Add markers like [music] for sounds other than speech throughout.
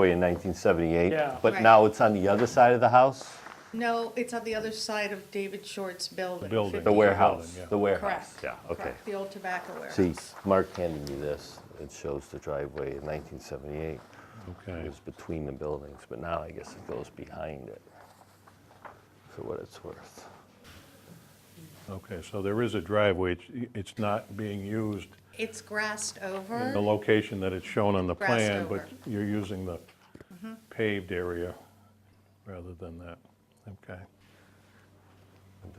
way in 1978. Yeah. But Right. now it's on the other side of the house, No, it's on the other side of David Short's building. building. 50 the The warehouse, building, yeah. the warehouse. Correct. Yeah, okay. correct, The old tobacco warehouse. See, Mark handed me this. It shows the driveway in 1978. It Okay, was between the buildings, but now I guess it goes behind it, for what it's worth. okay, so there is a driveway, it's, it's not being used It's grassed in the over, location that it's shown on the Uh-huh. Grass plan, Mm-hmm. but over. you're using the paved area rather than that, okay. Can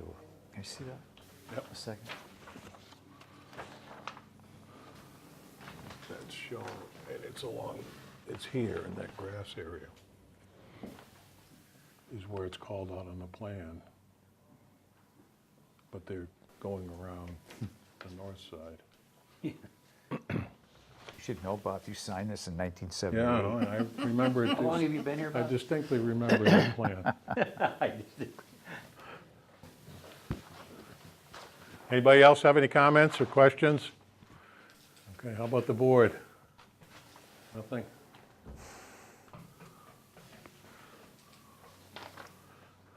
you see that? Yep. A second. That's shown, and it's along, it's here in that grass area. Is where it's called out on the plan. But they're going around the north side. You should know, Bob, you signed this in Yeah, I 1978. know, and [laughs] I remember, How long have it- you been here, I Bob? distinctly remember [laughs] the plan. I just- Anybody else have any comments or questions? Okay, how about the board? Nothing?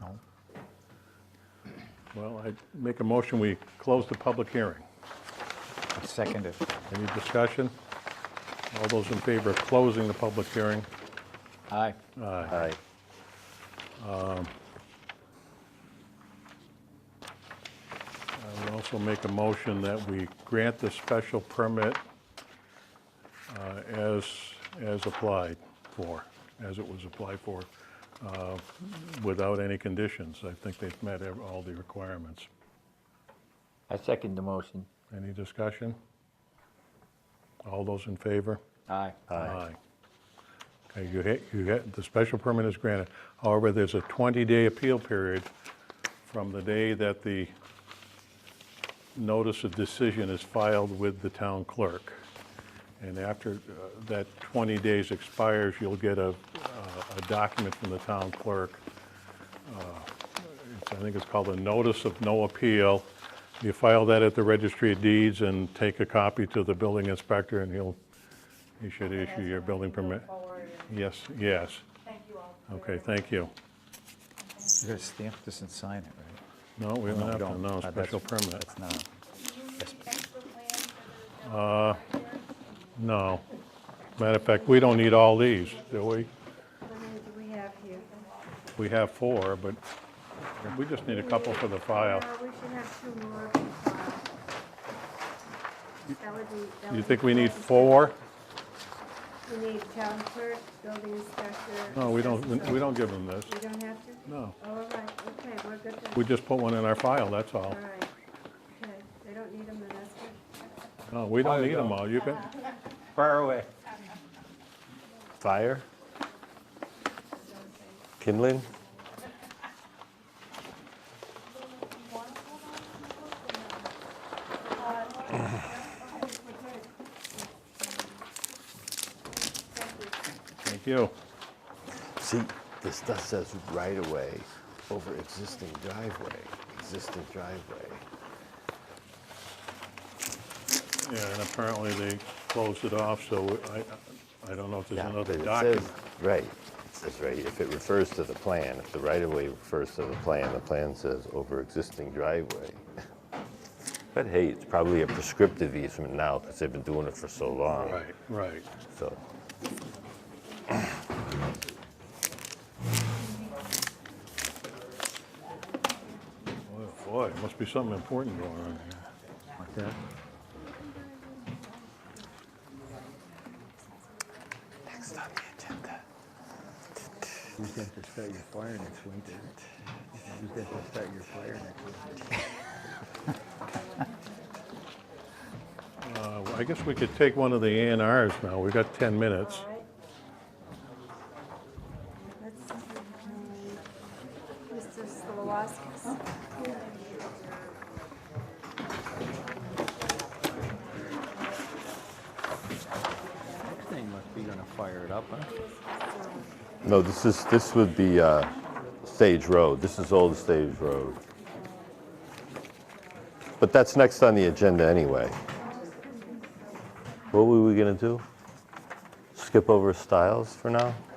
No. Well, I make a motion, we close the public hearing. Second it. Any discussion? All those in favor of closing the public hearing? Aye. Aye. Hi. I would also make a motion that we grant the special permit uh, as, as applied for, as it was applied for, uh, without any conditions. I think they've met ev- all the requirements. I second the motion. Any discussion? All those in favor? Aye. Aye. Okay, you hit, you hit, the special permit is granted. However, there's a 20-day appeal period from the day that the notice of decision is filed with the town clerk. And after uh, that 20 days expires, you'll get a, uh, a document from the town clerk. Uh, it's- I think it's called a notice of no appeal. You file that at the registry of deeds and take a copy to the building inspector, and he'll, he should issue your building permit. Yes, yes. Thank you all. Okay, thank you. You're going to stamp this and sign it, right? No, we don't No, have to, don't. no, Uh, that's- special permit. That's not, Uh, No. Matter of fact, we don't need all these, do we? How many do we have here? We have four, but we just need a couple for the file. No, Uh, we should have two more. of these files. That would be- that You would think be we need fine. four? We need town clerk, building inspector. No, we don't, assessor. we don't give them this. We don't have to? No. All right, okay, we're good then. We just put one in our file, that's all. All right, okay, they don't need them, then that's good. No, Oh, we don't need them all. You can, Fire away. Fire? Kindling? thank you. See, this stuff says right away over existing driveway, existing driveway. Yeah, and apparently they closed it off, so I, I don't know if there's Yeah, but another it document. says- Right, it says right, if it refers to the plan, if the right of way refers to the plan, the plan says over existing driveway. [laughs] But hey, it's probably a prescriptive easement now because they've been doing it for so long. Right, right. So, Boy, oh Boy, must be something important going on here. like that. next on the agenda. Who's going to start your fire next winter? Who's going to start your fire next winter? Uh, I guess we could take one of the A and Rs now. We've got 10 minutes. All right. Let's, um, Mr. Slawoskis? Next thing must be gonna fire it up, huh? No, this is, this would be uh, Stage Road. This is Old Stage Road. But that's next on the agenda anyway. What were we going to do? Skip over Styles for now?